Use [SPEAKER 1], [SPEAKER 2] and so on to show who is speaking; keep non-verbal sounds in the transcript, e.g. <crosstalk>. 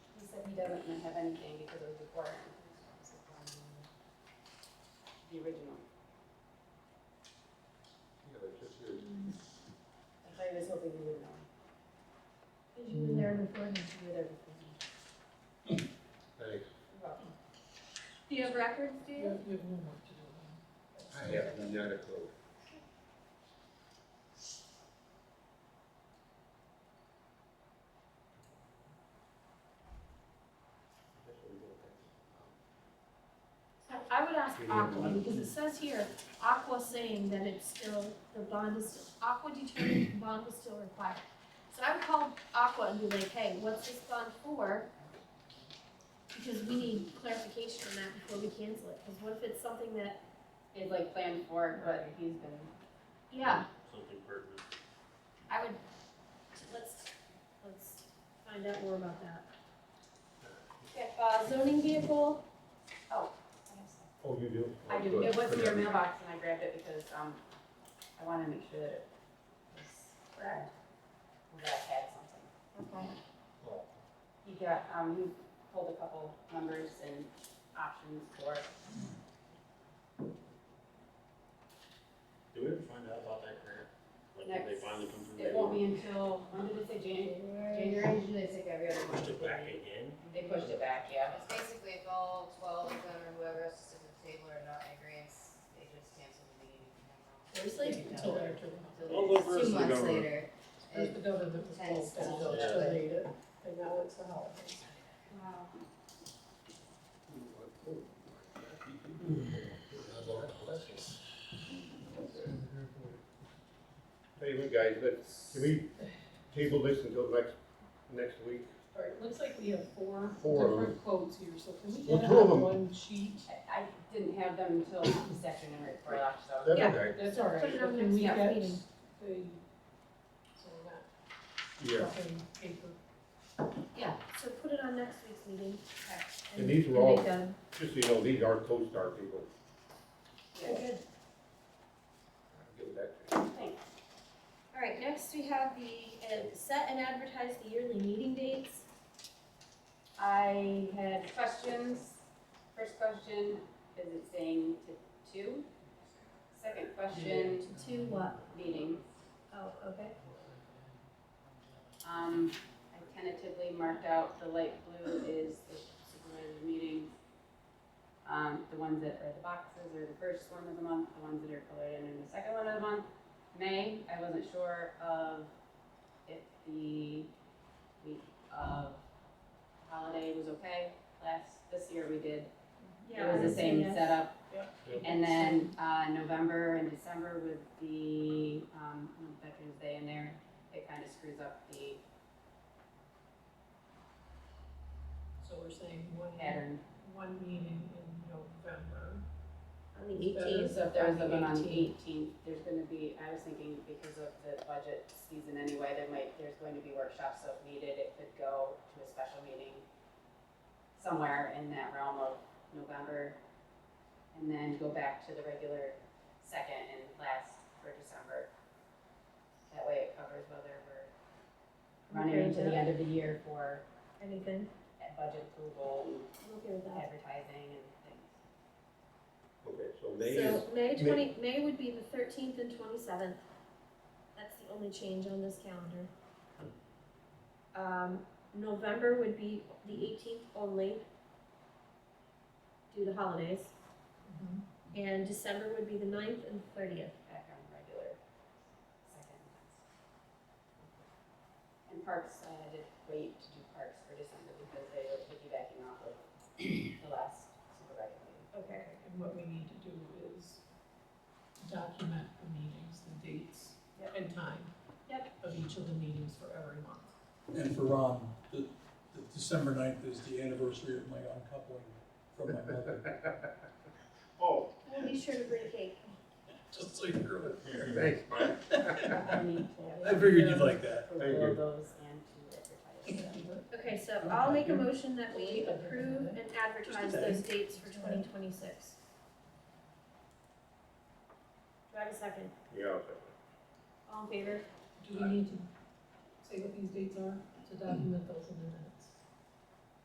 [SPEAKER 1] he doesn't have anything because it was recorded. The original.
[SPEAKER 2] Yeah, they're just here.
[SPEAKER 1] I thought you was hoping you would know.
[SPEAKER 3] Cause you were there before me.
[SPEAKER 1] You were there before me.
[SPEAKER 2] Thanks.
[SPEAKER 3] Do you have records, do you?
[SPEAKER 2] I have not a clue.
[SPEAKER 3] So I would ask Aqua, because it says here, Aqua saying that it's still, the bond is still, Aqua determined the bond was still required. So I would call Aqua and be like, hey, what's this bond for? Because we need clarification on that before we cancel it, because what if it's something that,
[SPEAKER 1] It's like planned for, it, but he's been,
[SPEAKER 3] yeah,
[SPEAKER 4] Something pertinent.
[SPEAKER 3] I would, let's, let's find out more about that. Okay, uh, zoning vehicle,
[SPEAKER 2] Oh, you do?
[SPEAKER 1] I do, it was in your mailbox and I grabbed it because, um, I wanted to make sure that it was correct. Or that I had something.
[SPEAKER 3] okay,
[SPEAKER 1] He got, um, he pulled a couple numbers and options for it.
[SPEAKER 4] Did we ever find out about that grant? Like, did they
[SPEAKER 1] Next-
[SPEAKER 4] finally come
[SPEAKER 1] It
[SPEAKER 4] through?
[SPEAKER 1] won't be until, when did it say January? January, usually they take every other month.
[SPEAKER 4] Pushed it back again?
[SPEAKER 1] They pushed it back, yeah.
[SPEAKER 5] It's basically if all twelve of them or whoever else is at the table are not in agreement, they just cancel the meeting.
[SPEAKER 3] seriously?
[SPEAKER 6] Until they're told.
[SPEAKER 4] Well, the rest of
[SPEAKER 5] Until it's two
[SPEAKER 4] the
[SPEAKER 5] months
[SPEAKER 4] government-
[SPEAKER 5] later.
[SPEAKER 6] There's the
[SPEAKER 5] It-
[SPEAKER 6] building that was closed, and the village still ate it, and now it's the holidays.
[SPEAKER 1] Wow.
[SPEAKER 2] Tell you what, guys, let's, can we table this until next, next week?
[SPEAKER 6] All right, it looks like we have four
[SPEAKER 2] Four of
[SPEAKER 6] different quotes here, so can we
[SPEAKER 2] Well,
[SPEAKER 6] get it
[SPEAKER 2] two of
[SPEAKER 6] on
[SPEAKER 2] them.
[SPEAKER 6] one sheet?
[SPEAKER 1] I, I didn't have them until this afternoon right before I left, so.
[SPEAKER 2] That's
[SPEAKER 3] Yeah.
[SPEAKER 2] okay.
[SPEAKER 6] That's all right,
[SPEAKER 3] Put it
[SPEAKER 6] but
[SPEAKER 3] on
[SPEAKER 6] can
[SPEAKER 3] next
[SPEAKER 6] we get the,
[SPEAKER 3] meeting.
[SPEAKER 6] so we're
[SPEAKER 2] Yeah,
[SPEAKER 6] not stuffing paper?
[SPEAKER 3] Yeah, so put it on next week's meeting.
[SPEAKER 2] And these were
[SPEAKER 3] and
[SPEAKER 2] all-
[SPEAKER 3] make them-
[SPEAKER 2] just so you know, these are co-star people.
[SPEAKER 1] Yeah.
[SPEAKER 2] I'll Give it back to you.
[SPEAKER 3] All right, next we have the, uh, set and advertise the yearly meeting dates.
[SPEAKER 1] I had questions. First question, is it saying to two? Second question,
[SPEAKER 3] To what?
[SPEAKER 1] meeting.
[SPEAKER 3] Oh, okay.
[SPEAKER 1] Um, I tentatively marked out the light blue is the supervisor meetings. Um, the ones that are the boxes are the first one of the month, the ones that are colored in are the second one of the month. May, I wasn't sure of if the week of holiday was okay. Last, this year we did, it was the same setup.
[SPEAKER 2] Yep.
[SPEAKER 1] And then, uh, November and December with the, um, Veterans Day in there, it kind of screws up the
[SPEAKER 6] So we're saying one,
[SPEAKER 1] pattern.
[SPEAKER 6] one meeting in November.
[SPEAKER 3] On the eighteenth.
[SPEAKER 1] So if there's
[SPEAKER 6] On
[SPEAKER 1] a
[SPEAKER 6] the
[SPEAKER 1] one on the
[SPEAKER 6] 18th.
[SPEAKER 1] eighteenth, there's gonna be, I was thinking because of the budget season anyway, there might, there's going to be workshops, so if needed, it could go to a special meeting somewhere in that realm of November, and then go back to the regular second and last for December. That way it covers whether we're running into the end of the year for
[SPEAKER 3] Anything?
[SPEAKER 1] budget approval,
[SPEAKER 3] I'm okay with
[SPEAKER 1] and
[SPEAKER 3] that.
[SPEAKER 1] advertising and things.
[SPEAKER 2] Okay, so May is,
[SPEAKER 3] So May
[SPEAKER 2] May-
[SPEAKER 3] twenty, May would be the thirteenth and twenty-seventh. That's the only change on this calendar. Um, November would be the eighteenth only due to holidays.
[SPEAKER 1] Mm-hmm.
[SPEAKER 3] And December would be the ninth and thirtieth.
[SPEAKER 1] back on regular second. And parks, I had to wait to do parks for December because they were piggybacking off of the last supervisor meeting.
[SPEAKER 3] Okay.
[SPEAKER 6] And what we need to do is document the meetings, the dates,
[SPEAKER 1] Yep.
[SPEAKER 6] and time of each of the meetings for every month.
[SPEAKER 7] And for Ron, the, the December ninth is the anniversary of my uncoupling from my mother,
[SPEAKER 2] oh,
[SPEAKER 3] We'll be sure to bring cake.
[SPEAKER 7] <laughs> just so you're aware.
[SPEAKER 2] thanks, Mike.
[SPEAKER 7] <laughs>
[SPEAKER 1] I need to
[SPEAKER 7] I figured you'd like that.
[SPEAKER 1] approve
[SPEAKER 2] Thank
[SPEAKER 1] all
[SPEAKER 2] you.
[SPEAKER 1] those and to advertise them.
[SPEAKER 3] Okay, so I'll make a motion that we approve and advertise those dates for twenty twenty-six. Do I have a second?
[SPEAKER 2] Yeah, okay.
[SPEAKER 3] All in favor?
[SPEAKER 6] Do we need to say what these dates are to document those in the minutes?